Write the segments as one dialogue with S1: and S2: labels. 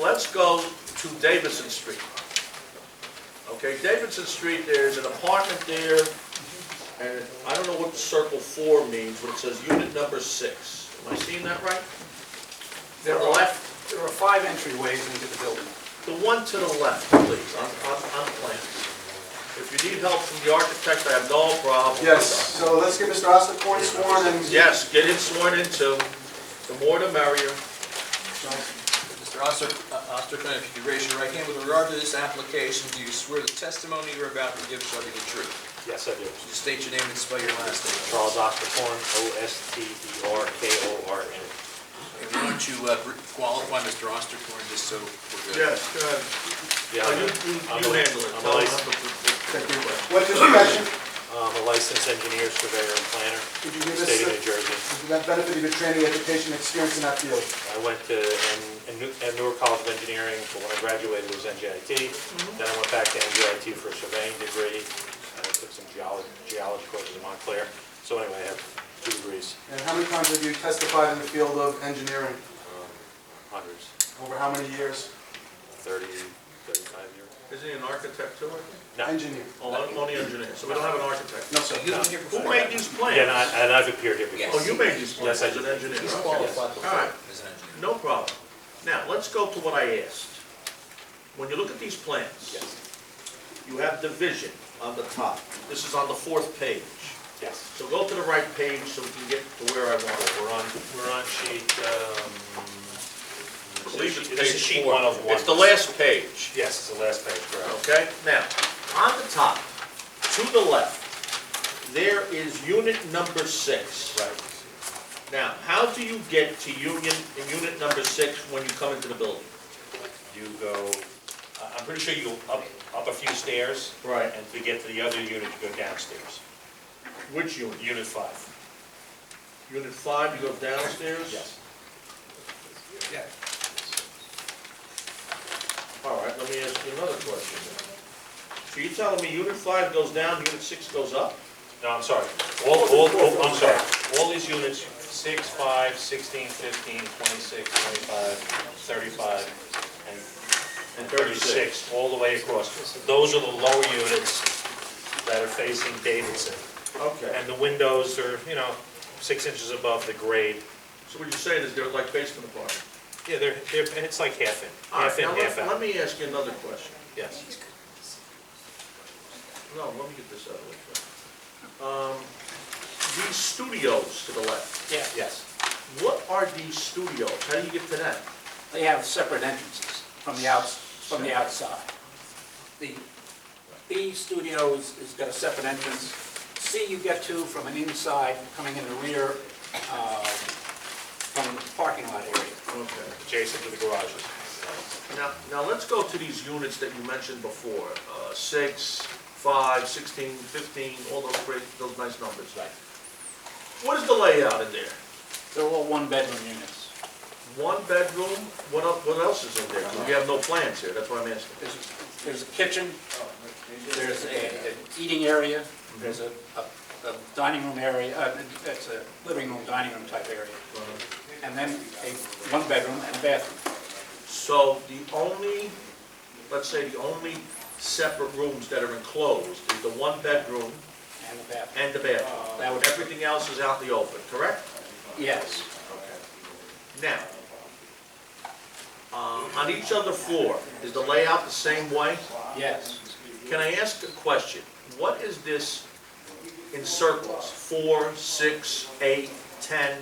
S1: let's go to Davidson Street. Okay, Davidson Street, there's an apartment there, and I don't know what circle four means, but it says unit number six. Am I seeing that right?
S2: There
S1: To the
S2: are,
S1: left,
S2: there are five entryways into the building.
S1: the one to the left, please, on, on, on plan. If you need help from the architect, I have no problem.
S3: Yes, so let's get Mr. Ostakorn sworn and...
S1: Yes, get it sworn in too. The more the merrier.
S4: Mr. Oster- uh, Osterkirk, if you could raise your right hand, with regard to this application, do you swear the testimony you're about to give shall be the truth?
S5: Yes, I do.
S4: Just state your name and spell your last name.
S5: Charles Osterkorn, E O-S-T-E-R-K-O-R-N.
S4: And Why don't you uh, re- qualify Mr. Osterkorn, just so we're good?
S1: go ahead.
S5: Yeah,
S1: Oh, You,
S5: I'm
S1: you,
S5: I'm
S1: you
S5: a-
S1: handle it.
S5: I'm a
S1: Tell them
S5: lic-
S1: how to-
S3: What's your profession?
S5: I'm a licensed engineer, surveyor, and planner,
S3: Could you give us,
S5: state of New
S3: the-
S5: Jersey.
S3: that benefit of your training, education, experience in that field?
S5: I went to, and, and Newark College of Engineering, but when I graduated it was
S3: Mm-hmm.
S5: NJIT. Then I went back to NJIT for a surveying degree, and I took some geology, geology courses in Montclair. So anyway, I have two degrees,
S3: And how many times have you testified in the field of engineering?
S5: hundreds,
S3: Over how many years?
S5: thirty, thirty-five years.
S1: Isn't he an architect too? I think?
S5: No.
S3: Engineer?
S1: Oh, I'm only engineer, so we don't have an architect.
S3: No, sir.
S4: You don't hear
S1: Who
S4: before.
S1: made these plans?
S5: Yeah, and I- and I've appeared here before.
S4: Yes.
S1: Oh, you made these plans
S5: Yes, I
S1: as an
S5: did.
S1: engineer,
S4: He's
S1: okay.
S4: qualified before
S1: All right.
S4: as an engineer.
S1: No problem. Now, let's go to what I asked. When you look at these plans,
S5: Yes,
S1: you have division on the top. This is on the fourth page.
S5: yes.
S1: So go to the right page so we can get to where I want it.
S5: We're on, we're on sheet, um...
S1: I believe it's
S5: This is
S1: page
S5: sheet
S1: four.
S5: one of one.
S1: It's the last page.
S5: Yes, it's the last page, correct.
S1: Okay, now, on the top, to the left, there is unit number six.
S5: Right.
S1: Now, how do you get to union, unit number six when you come into the building?
S5: You go, I- I'm pretty sure you go up, up a few stairs,
S1: Right.
S5: and to get to the other unit, you go downstairs.
S1: Which unit?
S5: Unit five.
S1: Unit five, you go downstairs?
S4: Yeah.
S1: All right, let me ask you another question then. So you're telling me unit five goes down, unit six goes up?
S5: No, I'm sorry. All, all, all- I'm sorry. All these units, six, five, sixteen, fifteen, twenty-six, twenty-five, thirty-five, and
S1: And
S5: 36, all the way across. Those are the lower units that are facing Davidson.
S1: Okay.
S5: And the windows are, you know, six inches above the grade.
S1: So what you're saying is they're like basement apartments?
S5: Yeah, they're, they're, and it's like half in,
S1: All right,
S5: half in,
S1: now
S5: half
S1: let, let
S5: out,
S1: me ask you another question.
S5: yes.
S1: No, let me get this out of the way. first. Um, These studios to the left,
S6: Yeah,
S5: Yes.
S1: what are these studios? How do you get to that?
S6: they have separate entrances from the outs, from the outside. The B Studios has got a separate entrance. C you get to from an inside, coming in the rear, uh, from the parking lot area.
S1: Okay.
S5: Adjacent to the garages.
S1: Now, now let's go to these units that you mentioned before, uh, six, five, sixteen, fifteen, all those great, those nice numbers.
S6: Right.
S1: What is the layout in there?
S6: They're all one-bedroom units.
S1: One bedroom, what el, what else is in there? 'Cause we have no plans here, that's what I'm asking.
S6: There's, there's a kitchen, there's a, an eating area, there's a, a a dining room area, uh, it's a living room, dining room type area. And then a one-bedroom and a bathroom.
S1: So the only, let's say the only separate rooms that are enclosed is the one bedroom
S6: And a bathroom,
S1: and the
S6: That
S1: bathroom.
S6: would-
S1: Everything else is out in the open, correct?
S6: yes.
S1: Now, uh, on each other floor, is the layout the same way?
S6: Yes,
S1: Can I ask a question? What is this in circles? Four, six, eight, ten?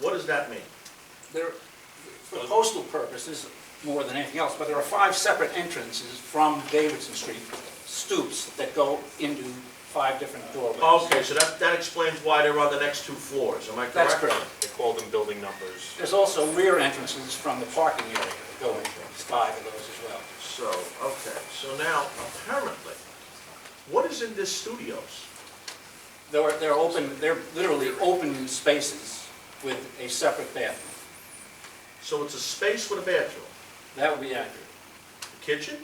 S1: What does that mean?
S6: there, for postal purposes, more than anything else, but there are five separate entrances from Davidson Street, stoops that go into five different doorways.
S1: Okay, so that, that explains why they're on the next two floors, am I correct?
S6: That's correct.
S5: They call them building numbers.
S6: There's also rear entrances from the parking area that go into, there's five of those as well.
S1: So, okay, so now, apparently, what is in this studios?
S6: They're, they're open, they're literally open spaces with a separate bathroom.
S1: So it's a space with a bathroom,
S6: That would be accurate.
S1: kitchen?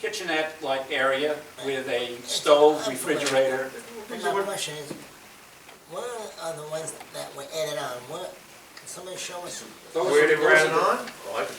S6: Kitchenette-like area with a stove, refrigerator,
S7: My question is, what are the ones that were added on? What, can somebody show us?
S6: Those
S1: Where
S6: are-
S1: they
S6: those
S1: ran
S6: are
S1: it
S6: the-
S1: on? Oh, I can